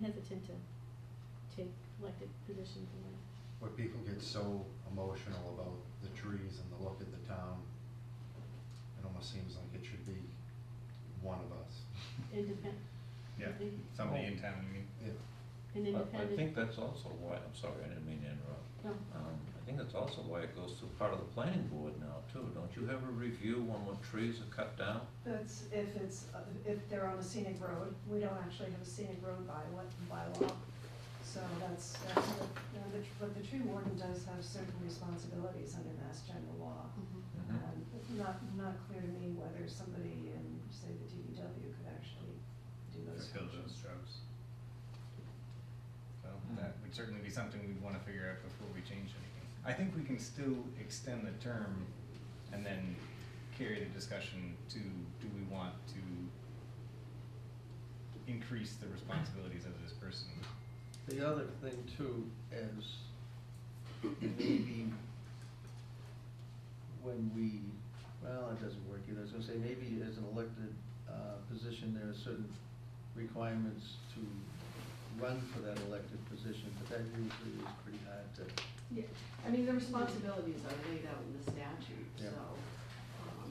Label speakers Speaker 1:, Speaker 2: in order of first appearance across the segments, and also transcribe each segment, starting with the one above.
Speaker 1: hesitant to take elected positions away.
Speaker 2: where people get so emotional about the trees and the look of the town. It almost seems like it should be one of us.
Speaker 1: Independent,
Speaker 3: Yeah, somebody in town, you mean?
Speaker 2: Yeah.
Speaker 1: an
Speaker 4: I- I
Speaker 1: independent.
Speaker 4: think that's also why, I'm sorry, I didn't mean to interrupt.
Speaker 1: No,
Speaker 4: Um, I think that's also why it goes through part of the planning board now too. Don't you have a review on what trees are cut down?
Speaker 5: That's if it's, uh, if they're on a scenic road, we don't actually have a scenic road by what, by law. So that's, that's, what- you know, the tr- but the tree warden does have certain responsibilities under mass general law.
Speaker 1: mhm.
Speaker 4: Mhm.
Speaker 5: And it's not, not clear to me whether somebody in, say, the DPW could actually do those
Speaker 3: Fulfill those
Speaker 5: functions.
Speaker 3: jobs. So that would certainly be something we'd wanna figure out before we change anything. I think we can still extend the term and then carry the discussion to, do we want to increase the responsibilities of this person?
Speaker 6: The other thing too is maybe when we, well, it doesn't work either. I was gonna say, maybe as an elected uh, position, there are certain requirements to run for that elected position, but that usually is pretty hard to,
Speaker 7: Yeah, I mean, the responsibilities are laid out in the statute,
Speaker 6: Yeah.
Speaker 7: so, um,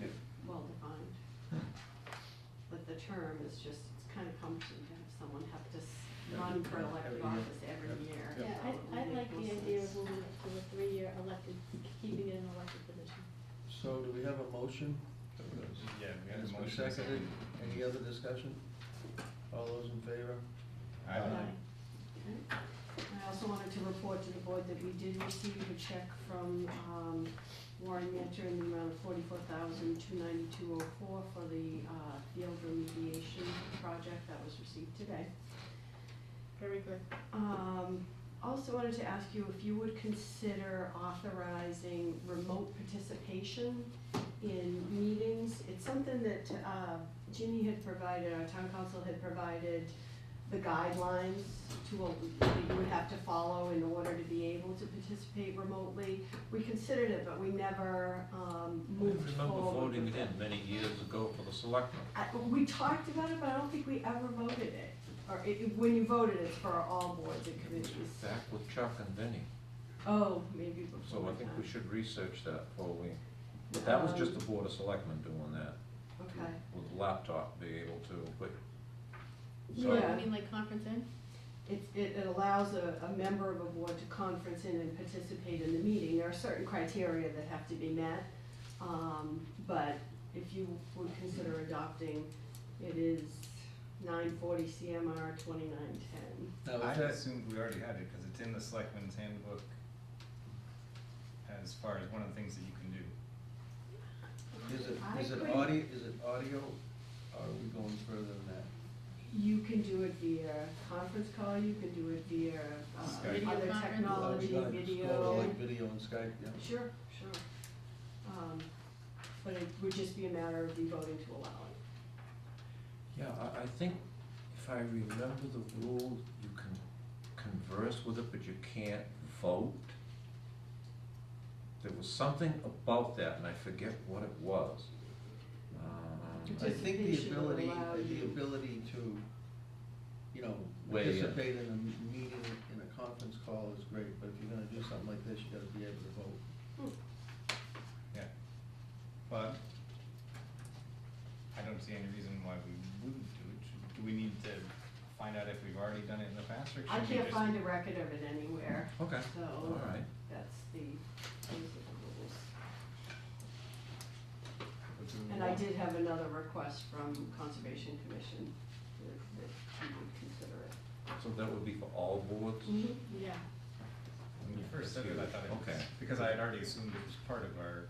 Speaker 3: Yeah.
Speaker 7: well defined. But the term is just, it's kind of cumbersome to have someone have to s-
Speaker 6: Yeah.
Speaker 7: run for elected
Speaker 6: Every year.
Speaker 7: office every
Speaker 6: Yeah.
Speaker 7: year.
Speaker 1: Yeah,
Speaker 7: so it
Speaker 1: I, I
Speaker 7: would
Speaker 1: like
Speaker 7: make
Speaker 1: the
Speaker 7: no
Speaker 1: idea
Speaker 7: sense.
Speaker 1: of moving it to a three-year elected, keeping it an elected position.
Speaker 6: so do we have a motion?
Speaker 3: Yeah, we have
Speaker 6: It's
Speaker 3: a
Speaker 6: been
Speaker 3: motion.
Speaker 6: seconded. Any other discussion? All those in favor?
Speaker 3: I don't know.
Speaker 1: Aye.
Speaker 7: I also wanted to report to the board that we did receive a check from um, Warren Mentor in the amount of forty-four thousand, two ninety-two oh four for the uh, field remediation project that was received today.
Speaker 1: Very good.
Speaker 7: Um, Also wanted to ask you if you would consider authorizing remote participation in meetings. It's something that uh, Ginny had provided, our town council had provided the guidelines to, a- that you would have to follow in order to be able to participate remotely. We considered it, but we never um,
Speaker 4: I
Speaker 7: moved
Speaker 4: remember
Speaker 7: forward
Speaker 4: voting
Speaker 7: with
Speaker 4: it
Speaker 7: it.
Speaker 4: in many years ago for the selectmen.
Speaker 7: I, we talked about it, but I don't think we ever voted it, or it, when you voted, it's for all boards and committees.
Speaker 4: Back with Chuck and Vinnie.
Speaker 7: Oh, maybe before
Speaker 4: So I
Speaker 7: my
Speaker 4: think
Speaker 7: time.
Speaker 4: we should research that before we, but that was just
Speaker 7: Um,
Speaker 4: the board of selectmen doing that.
Speaker 7: Okay,
Speaker 4: With laptop, be able to, but
Speaker 1: No,
Speaker 7: Yeah.
Speaker 1: I mean, like conference in?
Speaker 7: it, it, it allows a, a member of a board to conference in and participate in the meeting, there are certain criteria that have to be met. Um, but if you would consider adopting, it is nine forty CMR twenty-nine ten.
Speaker 6: Now, is
Speaker 3: I
Speaker 6: that-
Speaker 3: assumed we already had it, cause it's in the selectmen's handbook as far as one of the things that you can do.
Speaker 6: Is it,
Speaker 7: I
Speaker 6: is it
Speaker 7: couldn't-
Speaker 6: audio, is it audio, or are we going further than that?
Speaker 7: You can do it via conference call, you can do it via,
Speaker 3: Skype.
Speaker 7: uh,
Speaker 3: Video
Speaker 7: other
Speaker 1: conference.
Speaker 6: Are we
Speaker 7: technology,
Speaker 6: gonna explore,
Speaker 7: video.
Speaker 6: Like video and Skype, yeah.
Speaker 7: Sure, sure. Um, but it would just be a matter of you voting to allow it.
Speaker 4: Yeah, I, I think if I remember the rule, you can converse with it, but you can't vote. There was something about that, and I forget what it was. Um,
Speaker 6: I think the
Speaker 7: Participation will
Speaker 6: ability,
Speaker 7: allow
Speaker 6: the
Speaker 7: you-
Speaker 6: ability to, you know,
Speaker 4: Weigh in.
Speaker 6: participate in a m- meeting, in a conference call is great, but if you're gonna do something like this, you gotta be able to vote.
Speaker 3: Yeah, but I don't see any reason why we wouldn't do it. Should- Do we need to find out if we've already done it in the past, or should we
Speaker 7: I
Speaker 3: just?
Speaker 7: can't find a record of it anywhere,
Speaker 4: Okay, all
Speaker 7: so
Speaker 4: right.
Speaker 7: that's the, those are the rules.
Speaker 3: Which we
Speaker 7: And I
Speaker 3: want?
Speaker 7: did have another request from Conservation Commission that, that you would consider it.
Speaker 4: So that would be for all boards?
Speaker 6: Mm-hmm.
Speaker 1: Yeah.
Speaker 3: When you first said it, I thought it was,
Speaker 4: Okay.
Speaker 3: because I had already assumed it was part of our,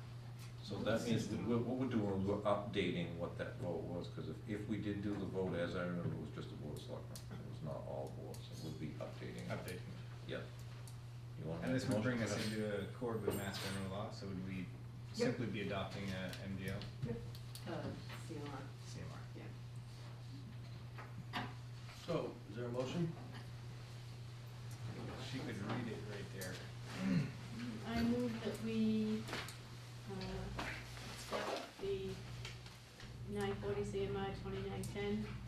Speaker 4: So that means, we- we- what we're doing is we're updating what that vote was, because if, if we did do the vote, as I remember, it was just the board of selectmen. It was not all boards, so we'll be updating. it.
Speaker 3: update.
Speaker 4: Yep. You want to
Speaker 3: And
Speaker 4: make
Speaker 3: this
Speaker 4: a
Speaker 3: would bring
Speaker 4: motion for
Speaker 3: us
Speaker 4: that?
Speaker 3: into accord with mass general law, so would we simply be adopting a MGL,
Speaker 7: Uh, CMR,
Speaker 3: CMR?
Speaker 7: yeah.
Speaker 6: So, is there a motion?
Speaker 3: She could read it right there.
Speaker 1: I move that we, uh, accept the nine forty CMI twenty-nine ten